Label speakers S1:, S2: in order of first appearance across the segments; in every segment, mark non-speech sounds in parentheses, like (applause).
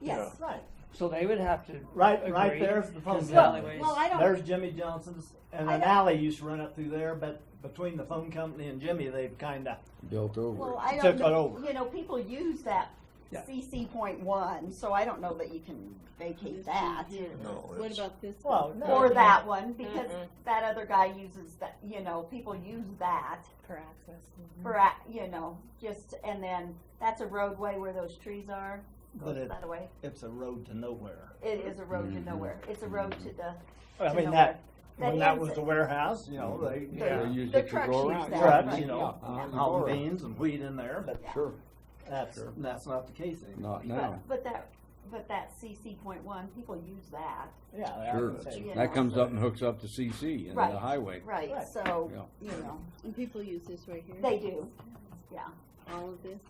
S1: Yes,
S2: Right,
S3: So they would have to.
S2: right, right
S3: agree
S2: there's the
S3: to
S2: phone
S3: the
S1: well,
S2: company.
S3: alleyways.
S1: well, I don't,
S2: There's Jimmy Johnson's, and
S1: I
S2: an
S1: don't-
S2: alley used to run up through there, but between the phone company and Jimmy, they've kinda,
S4: built over
S1: well,
S4: it.
S1: I
S2: Took
S1: don't,
S2: it
S1: know-
S2: over.
S1: you know, people use that
S2: Yeah.
S1: CC point one, so I don't know that you can vacate that.
S5: No,
S6: What
S5: it's-
S6: about this?
S2: Well,
S6: one?
S2: no. Mm-hmm.
S1: Or that one, because
S6: Mm-mm.
S1: that other guy uses that, you know, people use that
S6: For access.
S2: Mm-hmm.
S1: for, a- you know, just, and then that's a roadway where those trees are.
S2: but it,
S1: By the way,
S2: it's a road to nowhere.
S1: it is a road to nowhere. It's a road to the,
S2: I
S1: To
S2: mean,
S1: nowhere.
S2: that,
S1: That
S2: when that
S1: ends
S2: was
S1: it.
S2: the warehouse, you know, they,
S4: They
S2: yeah,
S4: used
S1: The
S4: it to
S1: trucks
S4: go
S1: use
S4: around.
S1: that,
S2: trucks,
S1: right.
S2: you know,
S4: Yeah, you
S2: hauling
S4: go around.
S2: beans and wheat in there, but
S1: Yeah.
S4: Sure,
S2: that's,
S4: Sure.
S2: that's not the case anymore.
S4: not
S1: but,
S4: now,
S1: but that, but that CC point one, people use that.
S2: Yeah. I
S4: sure.
S2: would say-
S1: Yeah.
S4: That comes up and hooks up to CC and the
S1: Right.
S4: highway.
S1: Right,
S2: Right.
S1: so,
S4: Yeah.
S1: you know,
S6: And people use this right here?
S1: they do.
S6: All of this?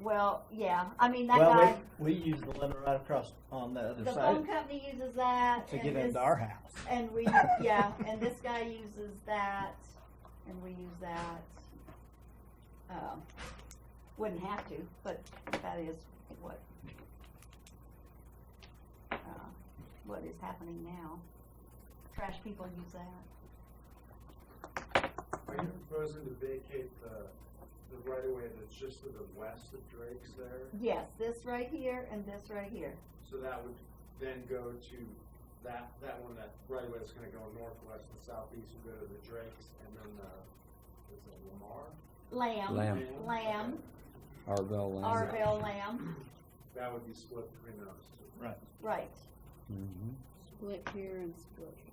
S1: Well, yeah, I mean, that guy,
S2: Well, we, we use the limit right across on the other
S1: the phone
S2: side
S1: company uses that.
S2: to
S1: and
S2: get
S1: this-
S2: into our house.
S1: And we, yeah, and this guy uses that, and we use that. Um, Wouldn't have to, but that is what, uh, what is happening now. Trash people use that.
S7: Are you proposing to vacate the, the right of way that's just to the west of Drake's there?
S1: Yes, this right here and this right here.
S7: So that would then go to that, that one, that right of way that's gonna go northwest and southeast would go to the Drake's and then the, is it Lamar?
S1: Lamb.
S4: Lamb,
S1: Lamb,
S4: Arvell Lamb.
S1: Arville Lamb,
S7: That would be split between those two.
S1: right.
S4: Mhm.
S6: Split here and split. here.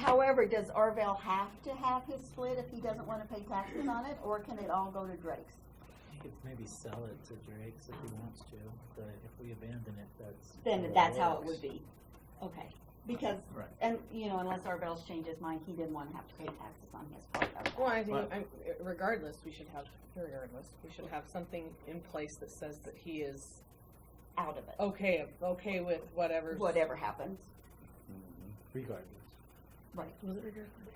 S1: However, does Arville have to have his split if he doesn't wanna pay taxes on it, or can it all go to Drake's?
S8: He could maybe sell it to Drake's if he wants to, but if we abandon it, that's.
S1: then
S8: it
S1: that's how it
S8: works.
S1: would be. Okay, because,
S2: Right.
S1: and, you know, unless Arvell's changed his mind, he didn't wanna have to pay taxes on his part of that.
S9: Well, I think,
S2: Right.
S9: I'm, regardless, we should have, regardless, we should have something in place that says that he is
S1: out of it,
S9: okay, okay with whatever.
S1: whatever happens.
S7: Regardless.
S1: Right.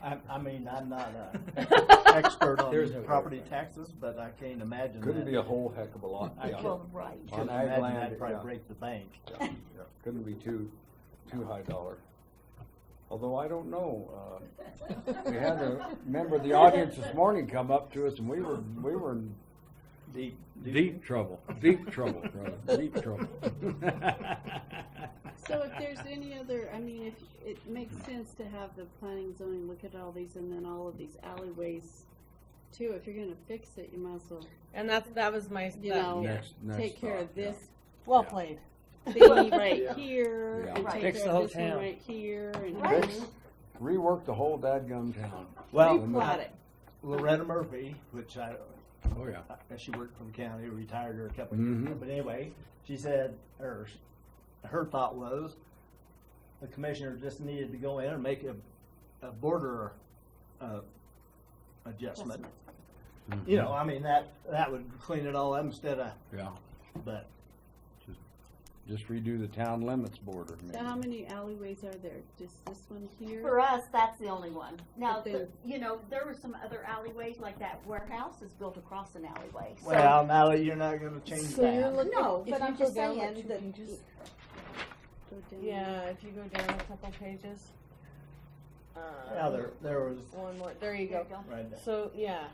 S2: I, I mean, I'm not an
S1: (laughs)
S9: Well,
S2: expert
S4: There's no
S2: on property taxes, but I can't imagine that.
S4: Couldn't be a whole heck of a lot,
S2: I
S4: yeah.
S2: can't-
S1: Well, right,
S2: Could
S4: On ag
S2: imagine
S4: land,
S2: that'd
S4: yeah.
S2: probably break the bank.
S4: Couldn't be too, too high dollar. Although I don't know, uh, we had a member of the audience this morning come up to us and we were, we were in
S2: Deep,
S4: deep trouble, deep trouble, brother, deep trouble.
S6: (laughs)
S4: (laughs)
S6: So if there's any other, I mean, if, it makes sense to have the planning and zoning look at all these and then all of these alleyways too. If you're gonna fix it, you might as well
S9: And that's, that was my,
S6: You
S9: that-
S6: know,
S4: Next, next
S6: take care
S4: thought,
S6: of this
S9: well
S4: Yeah.
S9: played.
S6: thingy right here
S4: Yeah.
S6: and
S1: Right.
S6: take
S8: Fix the
S6: care
S8: whole
S6: of this one
S8: town.
S6: right here and.
S4: yeah. Fix- Rework the whole dadgum town.
S2: Well, uh,
S9: Got it.
S2: Loretta Murphy, which I,
S4: Oh, yeah.
S2: I- she worked for the county, retired her a couple of years
S4: Mhm.
S2: ago, but anyway, she said, or s- her thought was, the commissioner just needed to go in and make a, a border, uh, adjustment. You know, I mean, that, that would clean it all up instead of,
S4: Yeah,
S2: but
S4: just redo the town limits border.
S6: So how
S4: maybe.
S6: many alleyways are there? Just this one here?
S1: for us, that's the only one. Now,
S6: But
S1: the- you know, there were some other alleyways, like that warehouse is built across an alleyway, so.
S2: Well, now that you're not gonna change
S6: So you're
S2: that.
S6: looking,
S1: No,
S6: if
S1: but
S6: you
S1: I'm
S6: go
S1: just
S6: down
S1: saying
S6: like two
S1: that-
S6: pages. Go down.
S9: Yeah, if you go down a couple pages. um,
S2: Yeah, there, there was,
S9: One more, there you
S1: There
S9: go.
S1: you go.
S2: right there.
S9: So, yeah,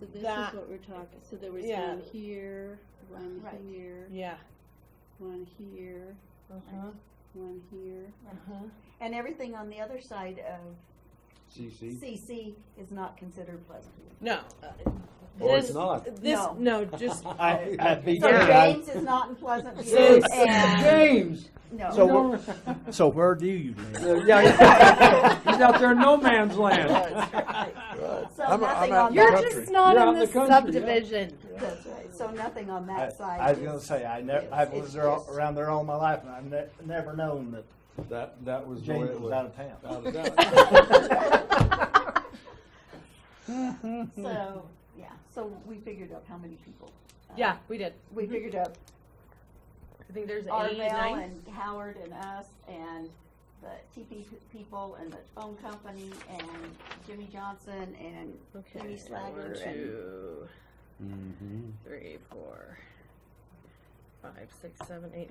S6: So this is
S9: That-
S6: what we're talking, so there was
S9: Yeah.
S6: one here, one
S1: Right.
S6: here,
S9: yeah.
S6: one here,
S9: Uh-huh,
S6: one here.
S9: uh-huh.
S1: And everything on the other side of
S4: CC?
S1: CC is not considered Pleasantview.
S9: No. uh,
S4: Or it's
S9: this-
S4: not.
S9: This,
S1: No.
S9: no,
S4: (laughs)
S9: just,
S2: I, I beat
S1: So
S2: you guys.
S1: James is not in Pleasantview,
S4: James.
S1: and,
S4: James!
S1: no.
S2: So where- So where do you live?
S4: Yeah, (laughs) he's out there in no man's land.
S1: So
S4: I'm- I'm
S1: nothing
S4: out
S1: on
S4: in the
S1: that,
S4: country. not You're in out in the the country, yeah.
S9: subdivision.
S1: that's right, so nothing on
S2: I,
S1: that side.
S2: I was gonna
S1: is-
S2: say, I never, I've lived there all- around there all my life, and I've ne- never known that
S4: That, that was the way
S2: James
S4: it
S2: was
S4: was.
S2: out of town.
S4: Out of town.
S1: So, yeah, so we figured out how many people. uh,
S9: Yeah, we did.
S1: We figured out
S9: I think there's eight,
S1: Arvell
S9: nine.
S1: and Howard and us and the TP people and the phone company and Jimmy Johnson and
S9: Okay,
S1: Penny Slager
S9: one,
S1: and-
S9: two,
S4: Mhm.
S9: three, four, five, six, seven, eight, nine.